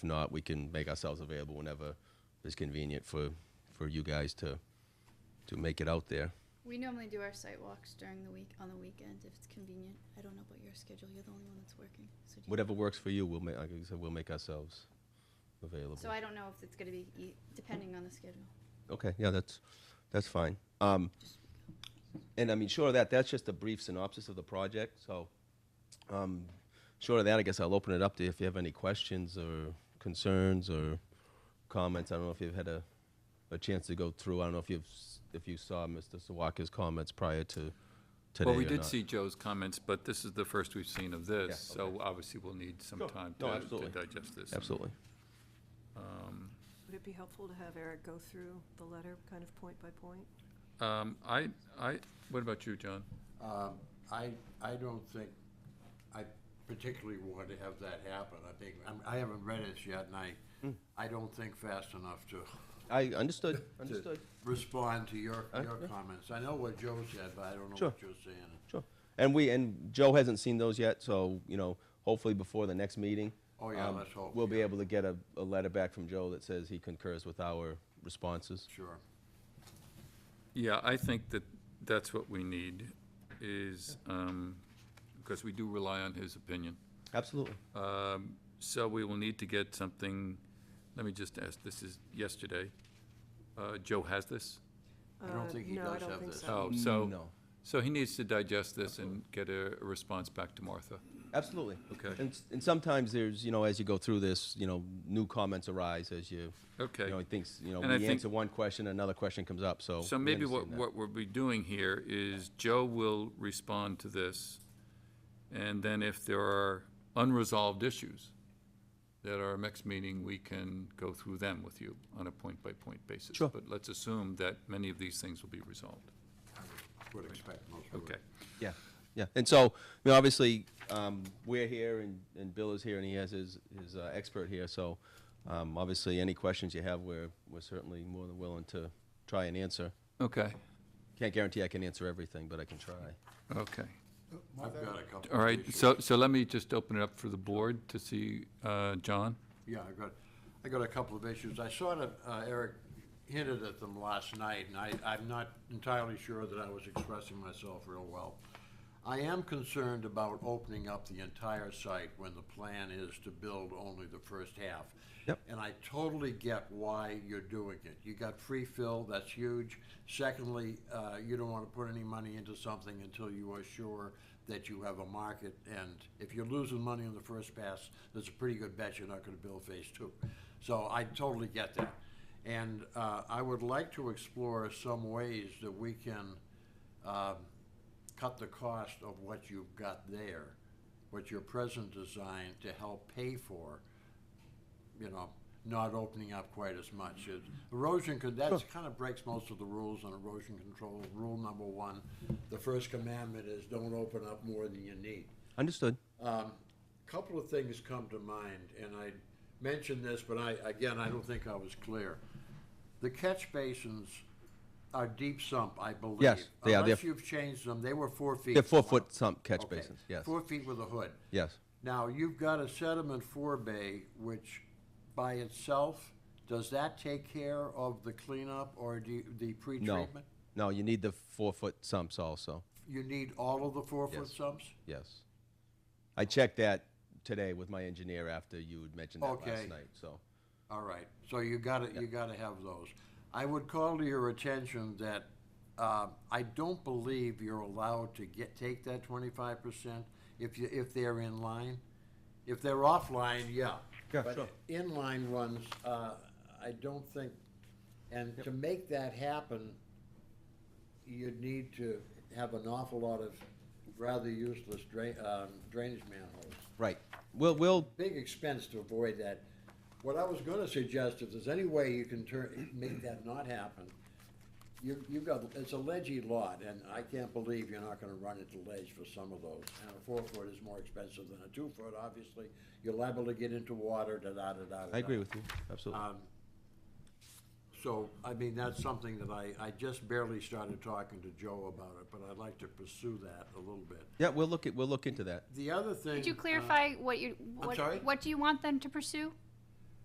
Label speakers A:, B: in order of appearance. A: If not, we can make ourselves available whenever it's convenient for, for you guys to, to make it out there.
B: We normally do our site walks during the week, on the weekend, if it's convenient. I don't know about your schedule, you're the only one that's working, so. do you-
A: Whatever works for you, we'll make, like I said, we'll make ourselves available.
B: So I don't know if it's gonna be, e- depending on the schedule.
A: Okay, yeah, that's, that's fine. Um, and I mean, short of that, that's just a brief synopsis of the project, so, um, short of that, I guess I'll open it up to if you have any questions or concerns or comments. I don't know if you've had a, a chance to go through, I don't know if you've, s- if you saw Mr. Sawaka's comments prior to today
C: Well, we
A: or
C: did
A: not.
C: see Joe's comments, but this is the first we've seen of this,
A: Yeah, okay.
C: so obviously we'll need some
A: Sure.
C: time
A: No,
C: to- to
A: absolutely.
C: digest this.
A: Absolutely.
D: Would it be helpful to have Eric go through the letter, kind of point by point?
C: Um, I, I, what about you, John?
E: Um, I, I don't think, I particularly want to have that happen. I think, I'm- I haven't read it yet, and
A: Hmm.
E: I, I don't think fast enough to.
A: I understood,
E: to
A: understood.
E: Respond to your,
A: Uh,
E: your
A: yeah.
E: comments. I know what Joe said, but I don't know
A: Sure.
E: what you're saying.
A: Sure. And we, and Joe hasn't seen those yet, so, you know, hopefully before the next meeting.
E: Oh, yeah,
A: um,
E: let's hope,
A: We'll be
E: yeah.
A: able to get a, a letter back from Joe that says he concurs with our responses.
E: Sure.
C: Yeah, I think that that's what we need, is, um, because we do rely on his opinion.
A: Absolutely.
C: Um, So we will need to get something, let me just ask, this is yesterday. Uh, Joe has this?
E: I don't
D: Uh,
E: think he
D: no, I
E: does
D: don't
E: have
D: think
E: this.
D: so.
C: Oh, so,
A: No.
C: so he needs to digest this and get a a response back to Martha.
A: Absolutely.
C: Okay.
A: And, s- and sometimes there's, you know, as you go through this, you know, new comments arise as you, you
C: Okay.
A: know, he thinks, you know,
C: And I
A: we
C: think-
A: answer one question, another question comes up, so.
C: So
A: Oh, we
C: maybe what,
A: understand that.
C: what we'll be doing here is Joe will respond to this, and then if there are unresolved issues that our next meeting, we can go through them with you on a point-by-point basis.
A: Sure.
C: But let's assume that many of these things will be resolved.
E: Would expect most of it.
C: Okay.
A: Yeah, yeah. And so, you know, obviously, um, we're here and, and Bill is here and he has his, his uh, expert here. So, um, obviously, any questions you have, we're, we're certainly more than willing to try and answer.
C: Okay,
A: Can't guarantee I can answer everything, but I can try.
C: okay.
E: I've got a couple.
C: All
E: of
C: right,
E: issues.
C: so, so let me just open it up for the board to see, uh, John?
E: Yeah, I got, I got a couple of issues. I sort of, uh, Eric hinted at them last night, and I, I'm not entirely sure that I was expressing myself real well. I am concerned about opening up the entire site when the plan is to build only the first half.
A: Yep.
E: And I totally get why you're doing it. You got free fill, that's huge. Secondly, uh, you don't want to put any money into something until you are sure that you have a market. And if you're losing money on the first pass, there's a pretty good bet you're not going to build phase two. So I totally get that. And uh, I would like to explore some ways that we can um, cut the cost of what you've got there, what your present design to help pay for you know, not opening up quite as much. It- Erosion, con- that's kind of breaks most of the rules on erosion control. Rule number one, the first commandment is don't open up more than you need. Um,
A: Understood.
E: Couple of things come to mind, and I mentioned this, but I, again, I don't think I was clear. The catch basins are deep sump, I believe.
A: Yes, they are. They're-
E: Unless you've changed them, they were four feet.
A: They're
E: for a
A: four
E: while.
A: foot sump catch
E: Okay,
A: basins. Yes.
E: Four feet with a hood.
A: Yes.
E: Now, you've got a sediment forebay, which by itself, does that take care of the cleanup or do you- the
A: No.
E: pre-treatment?
A: No, you need the four foot sumps also.
E: You need all of the four-foot
A: Yes.
E: sumps?
A: Yes. I checked that today with my engineer after you had mentioned that last
E: Okay.
A: night. So,
E: All right, so you gotta, you gotta have those. I would call to your attention that, uh, I don't believe you're allowed to get, take that twenty-five percent if you, if they're in line. If they're offline, yeah.
A: Yeah,
E: But
A: sure.
E: Inline ones, uh, I don't think, and to make that happen, you'd need to have an awful lot of rather useless drain, um, drainage manholes
A: right. We'll, we'll,
E: big expense to avoid that. What I was gonna suggest, if there's any way you can turn, make that not happen, you, you've got, it's a ledgy lot, and I can't believe you're not gonna run into ledge for some of those. And a four foot is more expensive than a two foot, obviously, you're liable to get into water, da-da-da-da.
A: I agree with you. Absolutely.
E: So, I mean, that's something that I, I just barely started talking to Joe about it, but I'd like to pursue that a little bit.
A: Yeah, we'll look at, we'll look into that.
E: The other thing.
F: Could you
E: uh,
F: clarify what you,
E: sorry?
F: what, what do you want them to pursue?